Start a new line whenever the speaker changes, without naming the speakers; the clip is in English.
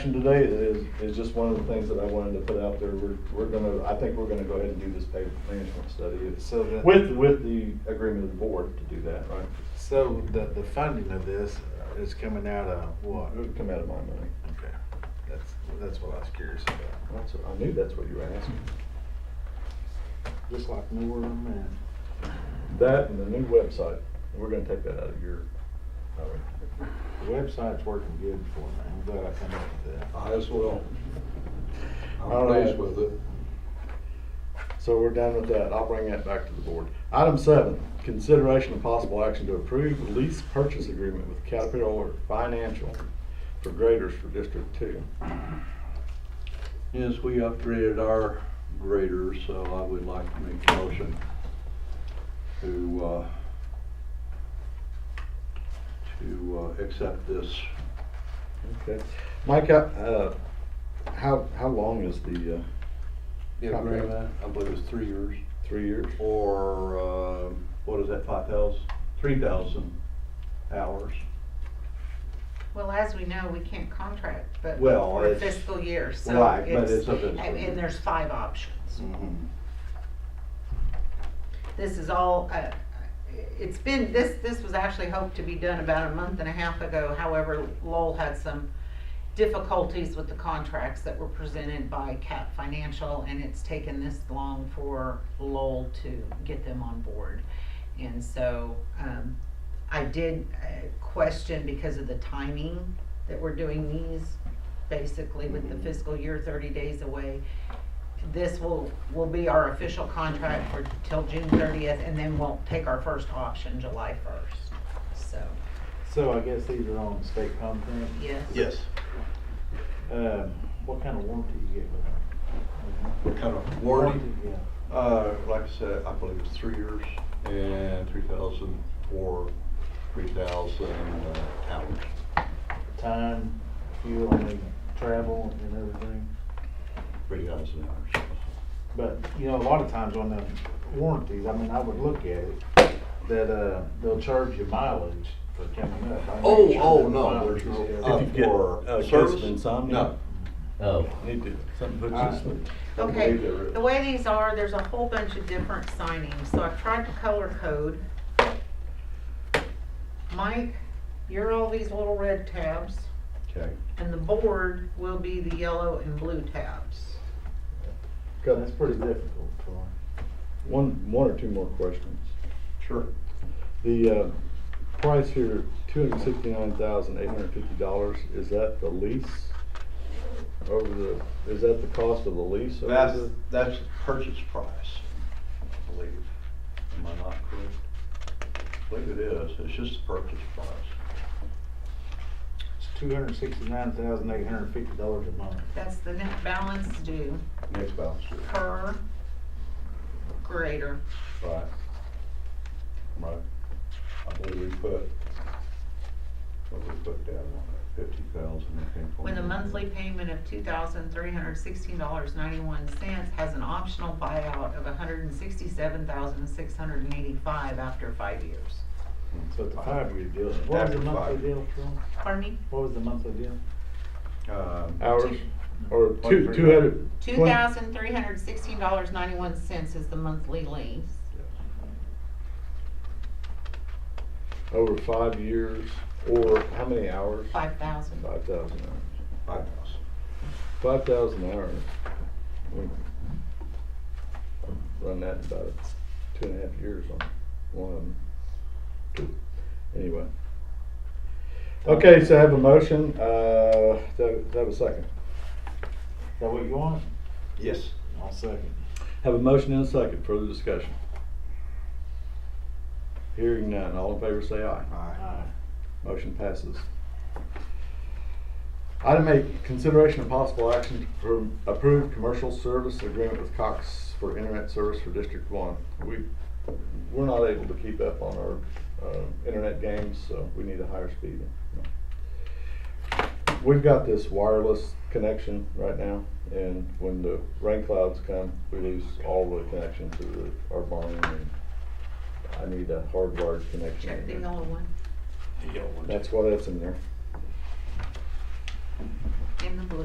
Today is, is just one of the things that I wanted to put out there. We're, we're gonna, I think we're gonna go ahead and do this pavement management study. It's
So the-
With, with the agreement of the board to do that, right?
So the, the funding of this is coming out of what?
It would come out of my money.
Okay, that's, that's what I was curious about.
That's, what- I knew that's what you were asking.
Just like Norm and.
That and the new website, we're gonna take that out of your, all right.
The website's working good for me. I'm glad I come up with that.
I as well.
All
I'm
right.
pleased with it.
So we're done with that. I'll bring that back to the board. Item seven, consideration of possible action to approve lease purchase agreement with Caterpillar Financial for graders for District Two.
Yes, we upgraded our grader, so I would like to make a motion to, uh, to, uh, accept this.
Okay. Mike, uh, uh, how, how long is the, uh, Contract.
I believe it's three years,
three years?
or, uh, what is that, five thousand, three thousand hours?
Well, as we know, we can't contract, but
Well,
for
it's-
fiscal year, so
right, but
it's,
it's a fiscal
and and
year.
there's five options. This is all, uh, it's been, this, this was actually hoped to be done about a month and a half ago. However, Lowell had some difficulties with the contracts that were presented by Cap Financial, and it's taken this long for Lowell to get them on board. And so, um, I did uh, question because of the timing that we're doing these, basically with the fiscal year thirty days away. This will, will be our official contract for, till June thirtieth, and then we'll take our first option July first, so,
So I guess these are on state content.
yes.
Yes.
Um, what kind of warranty you get with them?
What kind of warranty?
Yeah.
Uh, like I said, I believe it's three years and three thousand for three thousand uh, hours.
Time, fuel, and travel and everything.
Three thousand hours.
But, you know, a lot of times on the warranties, I mean, I would look at it, that, uh, they'll charge you mileage for coming up. I'm not
Oh,
sure
oh,
that
no,
mileage
there's no,
is-
uh,
If you get,
for
uh, kids
service?
with insomnia.
No.
Oh,
Need to, something puts
All
us.
right.
Okay, the way these are, there's a whole bunch of different signings, so I've tried to color code. Mike, you're all these little red tabs,
Okay.
and the board will be the yellow and blue tabs.
Got
That's pretty difficult for them.
One, one or two more questions.
Sure.
The, uh, price here, two hundred sixty-nine thousand, eight hundred fifty dollars, is that the lease? Over the, is that the cost of the lease? over
That's,
the-
that's the purchase price, I believe. Am I not correct? I believe it is. It's just the purchase price.
It's two hundred sixty-nine thousand eight hundred fifty dollars a month.
That's the net balance due
Next balance sheet.
per grader.
Right. Right. I believe we put, what we put down on that, fifty thousand, I think.
With a monthly payment of two thousand three hundred sixteen dollars ninety-one cents, has an optional buyout of $167,685 after five years.
So it's a five-year deal. What was
After
the monthly
five.
deal for 'em?
Pardon me?
What was the monthly deal?
Um,
Hours, or two,
Twenty-three.
two hundred?
Two thousand three hundred sixteen dollars ninety-one cents is the monthly lease.
Over five years, or how many hours?
Five thousand.
Five thousand hours.
five thousand.
Five thousand hours. We Run that about two and a half years on one of them. Two. Anyway. Okay, so I have a motion, uh, do do I have a second?
Is that what you want?
Yes.
I'll second.
Have a motion and a second, further discussion. Hearing none, all in favor say aye.
Aye.
Motion passes. Item eight, consideration of possible action to appro- approve commercial service agreement with Cox for internet service for District One. We, we're not able to keep up on our, uh, internet games, so we need a higher speed. We've got this wireless connection right now, and when the rain clouds come, we lose all the connection to the, our barn. and I need a hardwired connection.
Check
in
the
there.
yellow one.
That's why that's in there.
in the blue.